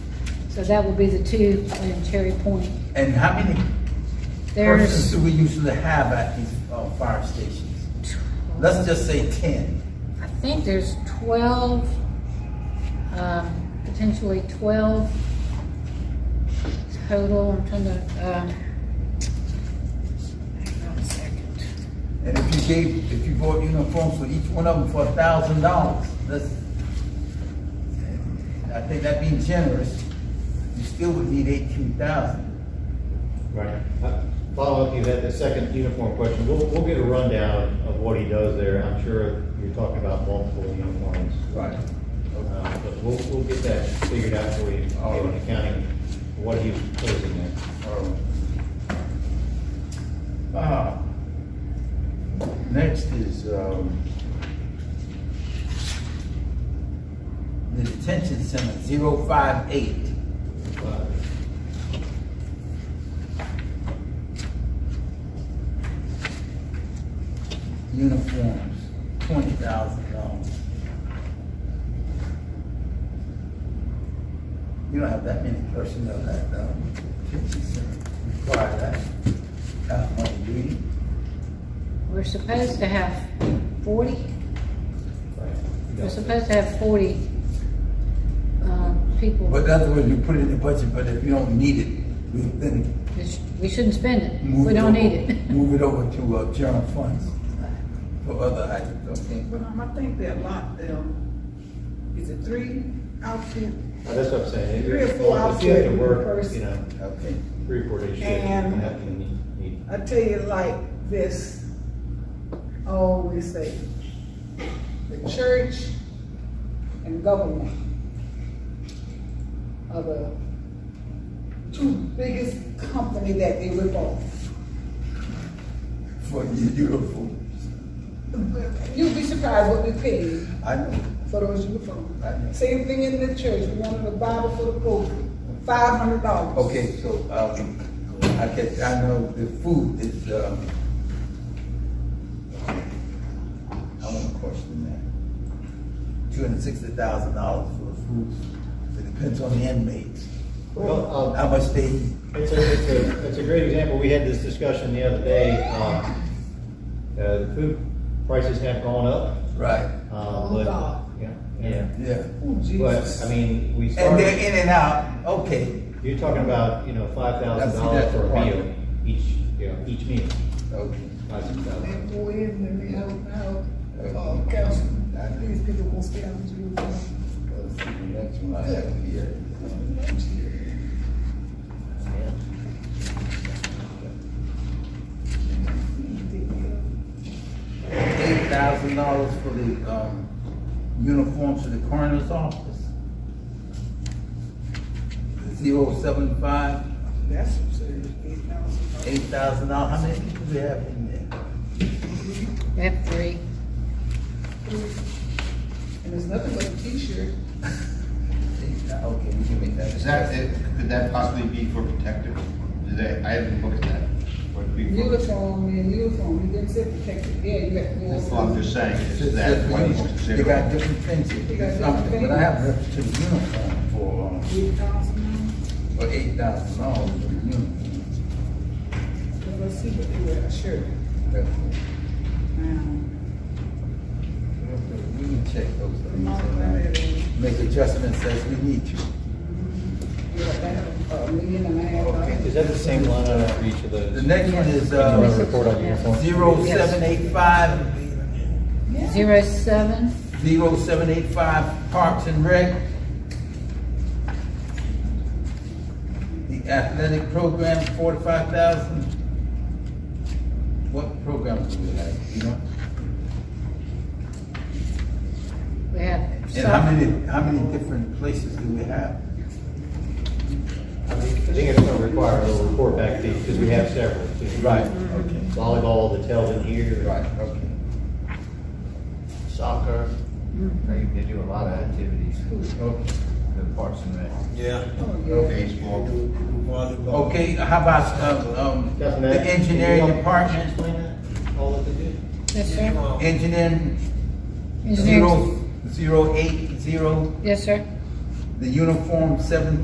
So that will be the two in Cherry Point. And how many persons There's do we usually have at these, uh, fire stations? Let's just say ten. I think there's twelve, um, potentially twelve total, I'm trying to, um, hang on a second. And if you gave, if you bought uniforms for each one of them for a thousand dollars, that's, I think that being generous, you still would need eighteen thousand. Right. Uh, Follow up, you had the second uniform question. We'll, we'll get a rundown of what he does there. I'm sure you're talking about multiple uniforms. Right. Uh, But we'll, we'll get that figured out for you, in accounting, what he was proposing there. Uh, Next is, um, the detention center, zero five eight. Uh, uniforms, twenty thousand dollars. You don't have that many personnel that, um, detention center require that kind of money, do you? We're supposed to have forty, right. we're supposed to have forty, um, people. But in other words, you put it in the budget, but if you don't need it, we then It's- We shouldn't spend it, move it. we don't over- need it. Move it over to, uh, general funds for other items, okay? But um, I think they're locked down. Is it three outfit? Uh, That's what I'm saying. Three or four If you have to outfits per work, person. you know, Okay. three or four days, you And- have to need- need I tell you like this, I always say, the church and government are the two biggest company that they rip off. For the uniforms, You'd be surprised what we pay I know, for those uniforms. I know. Same thing in the church, we wanted a Bible for the Pope, five hundred dollars. Okay, so, um, I guess, I know the food is, um, I want to question that. Two hundred and sixty thousand dollars for the food, it depends on the inmates, Well, um, how much they, eat. It's a, it's a, it's a great example. We had this discussion the other day. Um, uh, the food prices have gone up. right, Uh, Oh, but, God. yeah, yeah. yeah. Oh, But, Jesus. I mean, we And they're started, in and out, okay, you're talking about, you know, five thousand That's- dollars for a that's meal, right. each, you know, each meal, okay. five, six thousand. They go in and they help out, uh, council, I think these people will stay on the uniform. Let's see, the next one I have here. Eight thousand dollars for the, um, uniforms for the coroner's office. Zero seven five, That's absurd, eight thousand. eight thousand dollars, how many people we have in there? We have three. And it's nothing but a t-shirt. Eight thou- Okay, we can make that. Is that, it- could that possibly be for protective? Did they, I haven't looked at that. Would it be for- Uniform, man, uniform, you didn't say protected, yeah, you got. That's what I'm just saying, is It's that just what he's uniform. They got considering? different things, They got it's different something, but I things. have reference to the uniform for, um, Eight thousand, for eight thousand dollars for the uniform. because I see what they wear, a shirt. That's- Now, We can check those things Oh, and right. uh, make adjustments as we need to. you got that, uh, million and a half. Okay. Is that the same line item for each of The those? next one is, Do you want to uh, report on uniform? zero seven eight five, Yeah. Zero seven, zero seven eight five Parks and Rec. The athletic program, forty-five thousand. What programs do we have, you know? we have. And how soc- many, how many different places do we have? I think it's gonna require a little report back to you, because we have several. too. Okay. Volleyball, the Telvin here. Right, okay. soccer. Mm-hmm. They, they do a lot of activities, Okay. the Parks and Rec. Yeah. uh, Baseball. Volleyball. Okay, how about, um, um, Doesn't the that- engineering department? Explain that, all that they do? Yes, sir. Engineering, Engineers. zero, zero eight zero, Yes, sir. the uniform seven